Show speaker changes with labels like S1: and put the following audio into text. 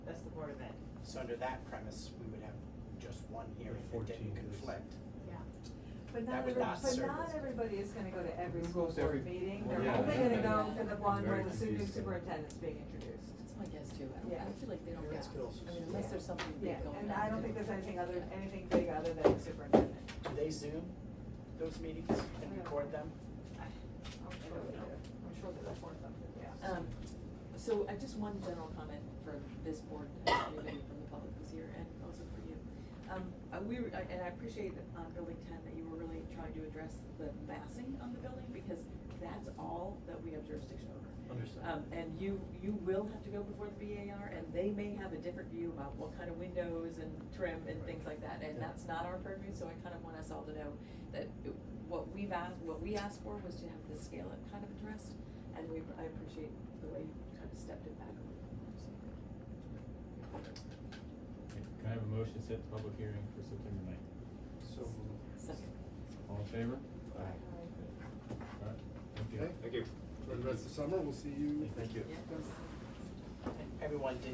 S1: Board of Ed.
S2: So under that premise, we would have just one hearing that
S3: 14
S2: didn't
S3: is-
S2: conflict.
S4: But not
S2: That would
S4: every,
S2: not
S4: but
S2: serve
S4: not
S2: as-
S4: everybody is gonna go to every
S3: Who
S4: school
S3: goes to every-
S4: board meeting,
S3: Well,
S4: they're
S3: yeah,
S4: only gonna
S3: yeah.
S4: go for the one
S3: Very
S4: where the su- new
S3: confusing.
S4: superintendent's being introduced.
S5: That's my guess too, I
S4: Yeah.
S5: don't, I feel like they don't get,
S2: Parents could also
S5: I mean, unless
S2: sue.
S5: there's something
S4: Yeah,
S5: big going on.
S4: and I don't
S5: they
S4: think there's anything other,
S5: Yeah.
S4: anything big other than the superintendent.
S2: Do they Zoom those meetings and record them?
S4: I'm sure they do, I'm sure they report them, yeah.
S5: Um, so I just one general comment for this board, and anybody from the public who's here, and also for you. Um, uh, we, were- I- and I appreciate on building ten that you were really trying to address the massing on the building, because that's all that we have jurisdiction over.
S3: Understood.
S5: Um, and you, you will have to go before the BAR, and they may have a different view about what kind of windows and trim and things like that, and
S3: Yeah.
S5: that's not our purview, so I kind of want us all to know that it- what we've asked, what we asked for was to have the scale up kind of addressed, and we, I appreciate the way you kind of stepped it back. a little bit, so.
S6: Can I have a motion to set the public hearing for September ninth?
S3: So
S5: Second.
S6: All in favor?
S3: Aye.
S6: All right, thank you.
S3: Okay.
S7: Thank you. For the rest of the summer, we'll see you.
S3: Thank you.
S5: Yeah.
S2: Everyone did